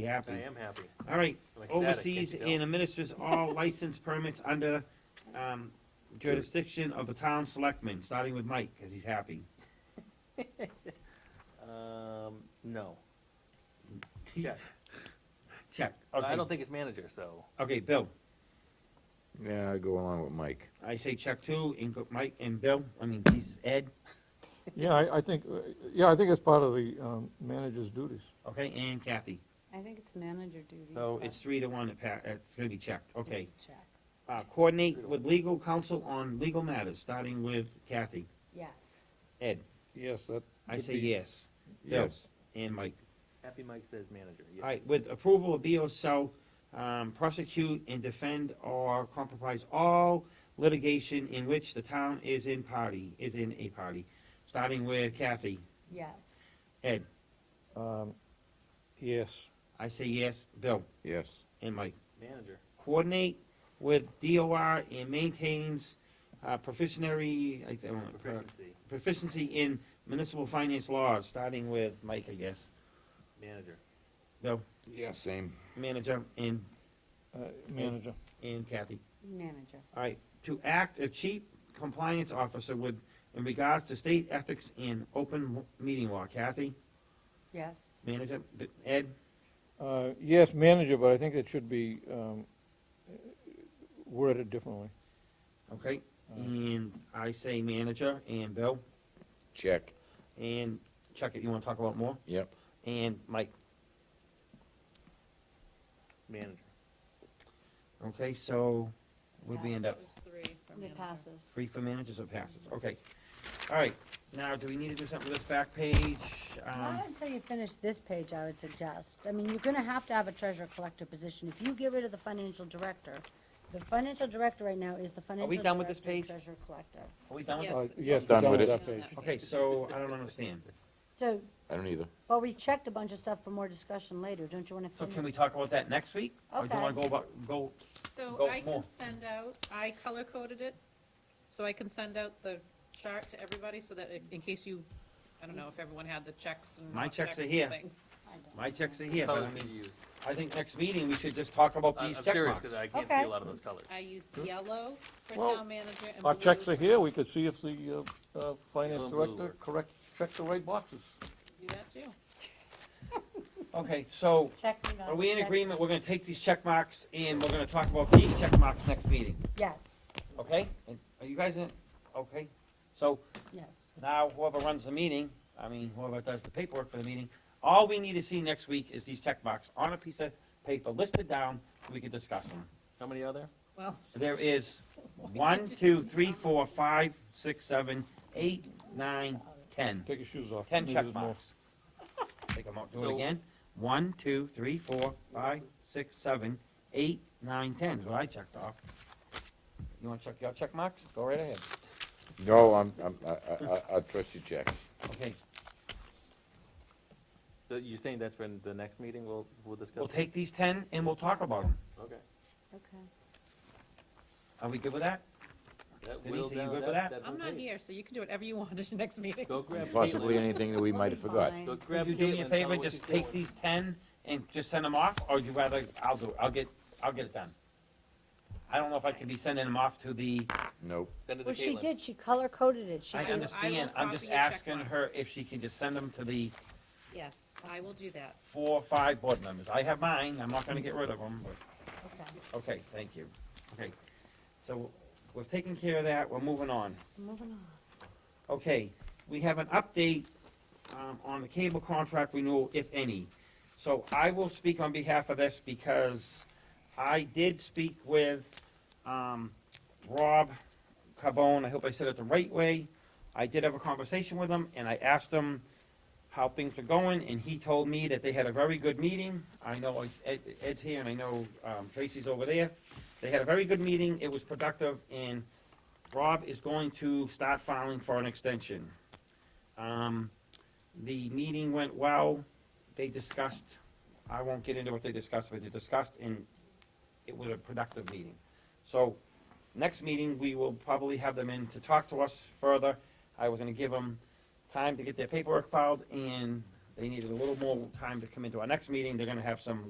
Be I happy. am happy. All right, I'm ecstatic, can't oversees you tell? and administers all license permits under um, jurisdiction of the town selectmen, starting with Mike, because he's happy. Um, no. Check. Check. I Okay, don't think it's manager, so. okay, Bill, Yeah, I go along with Mike. I say check two, and go- Mike and Bill, I mean, Jesus, Ed, Yeah, I, I think, uh, yeah, I think it's part of the um, manager's duties. okay, and Kathy. I think it's manager duty. So but Oh, it's three to one, that pa- it's gonna be checked, okay. it's check. Uh, Coordinate with legal counsel on legal matters, starting with Kathy. Yes. Ed, Yes, that. I would say be- yes, Yeah. Yes. and Mike. Happy Mike says manager, yes. All right, with approval of BO Cell, um, prosecute and defend or compromise all litigation in which the town is in party, is in a party, starting with Kathy. Yes. Ed, Um, Yes, I say yes, Bill Yes. and Mike. Manager, Coordinate with DOR and maintains, uh, proficiency, I don't know, proficiency, proficiency in municipal finance laws, starting with Mike, I guess, manager. Yeah, same. manager and, uh, manager. and Kathy. Manager. All right, to act a chief compliance officer with, in regards to state ethics and open meeting law. Kathy, Yes. manager, Ed, Uh, Yes, manager, but I think it should be um, worded differently. okay? And I say manager, and Bill, Check. and Chuck, if you wanna talk about more, Yep. and Mike. Manager. Okay, so where'd we end up? Passes three for It manager. passes. Three for managers or passes? Okay. All right, now, do we need to do something with this back page? Um, Not until you finish this page, I would suggest. I mean, you're gonna have to have a treasurer collector position. If you get rid of the financial director, the financial director right now is the financial director. done with this and page? Treasurer collector. Are we done with Uh, this? Yes. Yes, Done done with with it. that page. Okay, so I don't understand. So, I don't either. well, we checked a bunch of stuff for more discussion later. Don't you wanna So finish? can we talk about that next week? Or do you wanna go about, go Go So I more. can send out, I color coded it, so I can send out the chart to everybody so that in- in case you, I don't know if everyone had the checks and. My not checks are and here. things. I don't My know. checks are here, but I Colors did you mean, use? I think next meeting, we should just talk about I- I'm these check serious, marks. because I can't see a Okay. lot of those colors. I used yellow for Well, town manager and blue. Our checks are for- here, we could see if the uh, uh, finance Yellow, blue, director or- correct, checked the right boxes. Do that too. Okay, so Check me out. are we in Check- agreement, we're gonna take these check marks and we're gonna talk about these check marks next meeting, Yes, okay? And Are you guys in, okay? So yes. now whoever runs the meeting, I mean, whoever does the paperwork for the meeting, all we need to see next week is these check marks on a piece of paper listed down, we can discuss them. How many are there? Well, There is one, two, three, four, five, six, seven, eight, nine, ten. Take your shoes off. Ten Maybe check there's more. marks. Take them out, do it So- again. One, two, three, four, five, six, seven, eight, nine, ten, is what I checked off. You wanna check your check marks? Go right ahead. No, I'm, I'm, I, I- I, I trust your checks. Okay, So You're Uh, saying that's for the next meeting, we'll, we'll discuss? we'll it? take these ten and we'll talk about them. Okay. Okay. Are we good with that? That Denise, whittled are you down- good with that? I'm whittled not days. here, so you can do whatever you want at your next meeting. Go grab Possibly Caitlin. anything that we might have forgot. Fine. Go Will grab you do me Caitlin, a tell her favor, what just she's take doing. these ten and just send them off, or you rather, I'll do, it. I'll get, I'll get it done. I don't know if I can be sending them off to the, Nope. Send it to Well, she Caitlin. did, she color coded it, she I will- I did. under- understand, I'm just copy your check asking her marks. if she can just send them to the Yes, I will do that. four, five board members. I have mine, I'm not gonna get rid of them, but. okay, Okay, thank you. Okay, so we've taken care of that, we're moving on. moving on. Okay, we have an update um, on the cable contract renewal, if any. So I will speak on behalf of this because I did speak with um, Rob Carbone, I hope I said it the right way. I did have a conversation with him, and I asked him how things were going, and he told me that they had a very good meeting. I know Ed- Ed's here, and I know um, Tracy's over there. They had a very good meeting, it was productive, and Rob is going to start filing for an extension. Um, the meeting went well, they discussed, I won't get into what they discussed, but they discussed and it was a productive meeting. So, next meeting, we will probably have them in to talk to us further. I was gonna give them time to get their paperwork filed and they needed a little more time to come into our next meeting. They're gonna have some